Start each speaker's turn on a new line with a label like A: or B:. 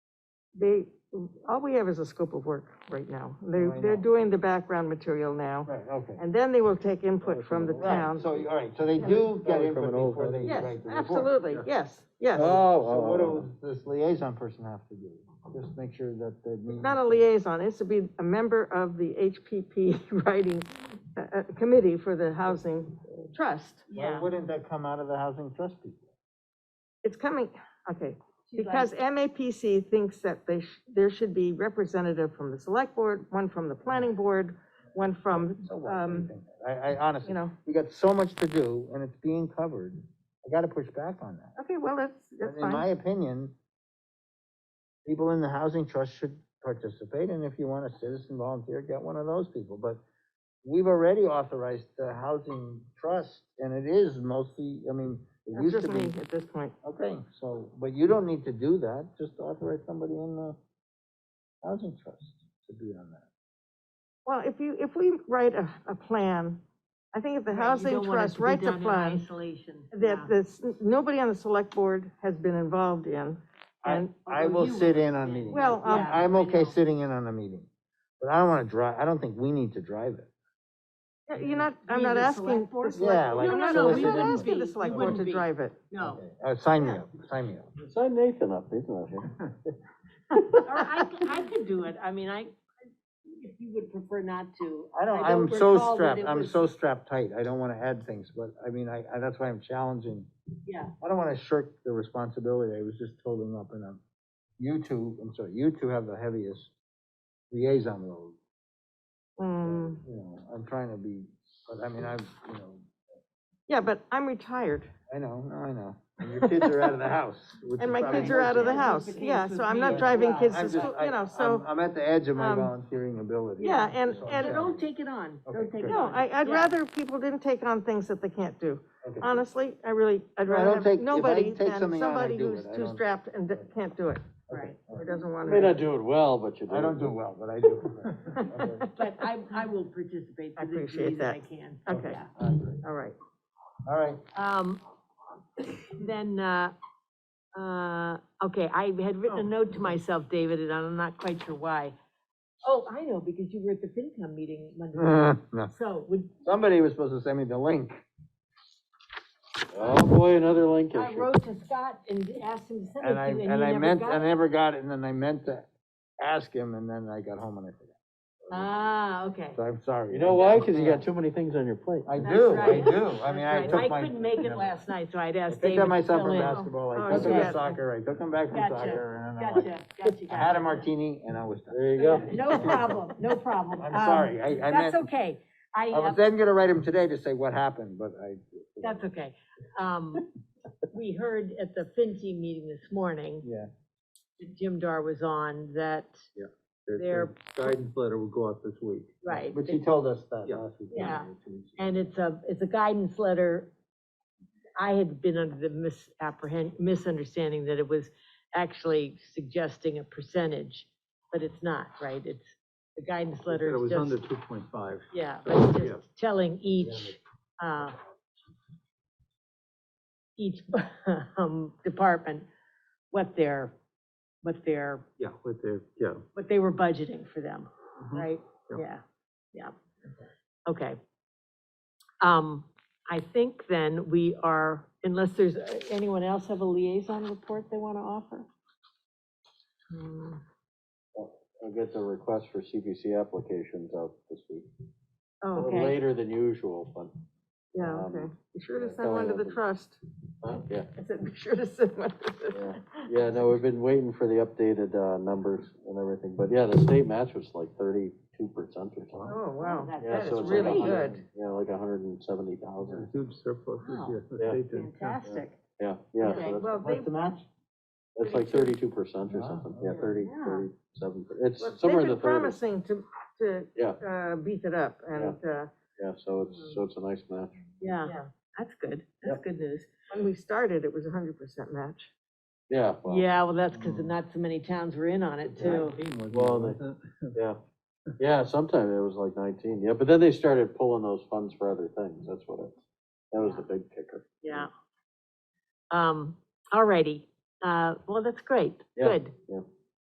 A: They, all we have is a scope of work right now.
B: Right
A: They're, they're
B: now.
A: doing the background material now,
B: Oh, Right, okay.
A: and then they will take input from the
B: Right,
A: town.
B: so, all right, so they do get
C: Probably
B: input
C: from an old
B: before they
C: company.
A: Yes,
B: write the report.
A: absolutely, yes, yes.
B: So what
C: Oh,
D: Uh,
B: does this liaison person have to do? Just make sure that the. meeting-
A: Not a liaison, it's to be a member of the HPP writing, uh, uh, committee for the housing trust.
B: Why wouldn't that come out of the housing trust people?
A: It's coming, okay,
D: She'd like-
A: because MAPC thinks that they, sh- there should be representative from the select board, one from the planning board, one from,
B: So what? What do you
A: um,
B: think? I, I honestly.
A: you know,
B: we got so much to do, and it's being covered. I gotta push back on that.
A: okay, well, that's, that's
B: In my
A: fine.
B: opinion, people in the housing trust should participate, and if you want a citizen volunteer, get one of those people, but we've already authorized the housing trust, and it is mostly, I mean, it
A: That's
B: used
A: just
B: to
A: me
B: be.
A: at this point.
B: Okay, so, but you don't need to do that, just authorize somebody in the housing trust to be on that.
A: Well, if you, if we write a, a plan, I think if the
D: Right, you
A: housing
D: don't want
A: trust
D: it to be
A: writes a
D: done in
A: plan
D: Isolation. yeah.
A: that this, nobody on the select board has been involved in,
B: I,
A: and
B: I
D: Although
B: will
D: you
B: sit
D: will.
B: in on meetings.
A: Well, um,
D: Yeah,
B: I'm
D: I
B: okay
D: know.
B: sitting in on a meeting, but I don't wanna drive, I don't think we need to drive it.
A: Yeah, You're not, I'm
D: Be
A: not
D: the
A: asking.
D: select board?
A: the select-
B: Yeah, like
A: No, no, no,
B: solicit-
A: I'm
B: We
A: not
B: wouldn't
A: asking the
D: be,
A: select
D: we
A: board
D: wouldn't
A: to
D: be.
A: drive it.
D: No,
B: Uh, sign me up, sign me up.
C: oh. Sign Nathan up, he's not here.
D: or I, c- I could do it, I mean, I, if you would prefer not to.
B: I don't, I'm so strapped, I'm so strapped tight, I don't wanna add things, but I mean, I, I, that's why I'm challenging.
D: Yeah,
B: I don't wanna shirk the responsibility, I was just holding up and, um, you two, I'm sorry, you two have the heaviest liaison load.
A: Mm,
B: You know, I'm trying to be, but I mean, I've, you know,
A: yeah, but I'm retired,
B: I know, no, I know, and your kids are out of the house. which
A: and
B: is
A: my
B: probably
A: kids
D: more
A: are out of the
D: challenging.
A: house,
D: That's the
A: yeah,
D: case
A: so
D: with
A: I'm
D: me
A: not
D: as
A: driving
D: well.
A: kids
B: I'm
A: to
B: just-
A: school,
B: I-
A: you know,
B: I'm-
A: so,
B: I'm at the edge of my
A: um,
B: volunteering ability.
A: yeah, and,
B: So I'm
A: and,
D: so don't take it on,
B: Okay,
D: don't take it
B: good.
A: no,
D: on.
A: I, I'd
D: Yeah.
A: rather people didn't take on things that they can't do.
B: Okay.
A: Honestly, I really, I'd
B: No, I
A: rather
B: don't
A: have
B: take- if I
A: nobody
B: take
A: than
B: something on, I
A: somebody
B: do
A: who's
B: it. I
A: too
B: don't-
A: strapped and d- can't do it,
D: Right,
A: or doesn't want
C: May
A: to.
C: not do it well, but you do.
B: I don't do well, but I do. Okay.
D: but I, I will participate
A: I
D: to the
A: appreciate
D: degree that I
A: that.
D: can.
A: Okay,
D: Yeah.
B: I agree.
A: all right.
B: All right,
D: Um, then, uh, uh, okay, I had
A: Oh.
D: written a note to myself, David, and I'm not quite sure why. Oh, I know, because you were at the FinCom meeting Monday.
A: Mm.
D: night.
B: No.
D: So would,
B: Somebody was supposed to send me the link.
C: Oh, boy, another link
D: I
C: issue.
D: wrote to Scott and asked him to send it
B: And
D: to
B: I,
D: you,
B: and I
D: and he never
B: meant, I
D: got it.
B: never got it, and then I meant to ask him, and then I got home and I forgot.
D: Ah, okay.
B: So I'm sorry.
C: You know why? Because you got too many things on your plate.
B: I
D: That's
B: do, I
D: right.
B: do. I mean, I
D: That's
B: took
D: right.
B: my.
D: I couldn't make it last night, so I'd
B: I
D: asked David
B: picked up my
D: to
B: son
D: fill
B: from
D: in.
B: basketball,
A: Oh,
B: I took him
A: yeah.
B: to soccer, I took him back from
D: Gotcha,
B: soccer, and then I went-
D: Gotcha, gotcha,
B: I had a
D: gotcha.
B: martini and I was done.
C: There you go.
D: No problem, no problem.
B: I'm
D: Um,
B: sorry, I, I meant,
D: That's okay. I,
B: I was
D: uh,
B: then gonna write him today to say what happened, but I.
D: that's okay. Um, we heard at the FinCom meeting this morning,
B: Yeah.
D: that Jim Dar was on, that, Their-
E: Guidance letter will go out this week.
D: right,
B: But he told us that
E: Yeah.
B: last week.
D: Yeah. and it's a, it's a guidance letter. I had been under the misapprehend, misunderstanding that it was actually suggesting a percentage, but it's not, right? It's, the guidance letter
E: It
D: is
E: was under
D: just,
E: two point five.
D: yeah, but it's
E: yeah.
D: just telling each, uh, each, um, department what their, what their,
E: Yeah, with the, yeah.
D: what they were budgeting for them, right?
E: Yeah.
D: Yeah, yeah. Mm-hmm. Okay. Um, I think then we are, unless there's, uh, anyone else have a liaison report they want to offer? Hmm,
C: I'll get the request for CPC applications out this week. A
A: Oh,
C: little
D: Okay.
C: later than usual, but,
A: yeah,
C: Um,
A: okay. Be sure to
C: yeah,
A: send one to
C: sorry,
A: the
C: I-
A: trust.
C: uh, yeah.
A: I said, be sure to send one to the.
C: Yeah, no, we've been waiting for the updated, uh, numbers and everything, but yeah, the state match was like thirty-two percent or something.
A: Oh, wow,
D: that's-
C: Yeah,
A: that is
C: so it's like a
A: really
C: hundred-
A: good.
C: Yeah, like a hundred and seventy thousand.
E: Huge surplus.
D: Wow.
C: Yeah.
D: Fantastic.
C: Yeah, yeah,
D: Okay,
C: so that's,
A: Well, they,
B: What's the match?
C: that's like thirty-two percent or
B: Wow,
C: something, yeah,
B: okay.
C: thirty,
A: Yeah.
C: thirty-seven,
A: well,
C: it's
A: they've
C: somewhere in the
A: been
C: thirties.
A: promising to, to,
C: Yeah,
A: uh, beef it up and, uh,
C: yeah, so it's, so it's a nice match.
D: Yeah,
A: Yeah.
D: that's good. That's good news.
A: when we started, it was a hundred percent match.
C: Yeah, well, yeah,
D: Yeah, well, that's because not so many towns were in on it too.
C: Well, yeah, sometime it was like nineteen, yeah, but then they started pulling those funds for other things, that's what it, that was the big kicker.
D: Yeah. Um, all righty. Uh, well, that's great.
C: Yeah,
D: Good.
C: yeah.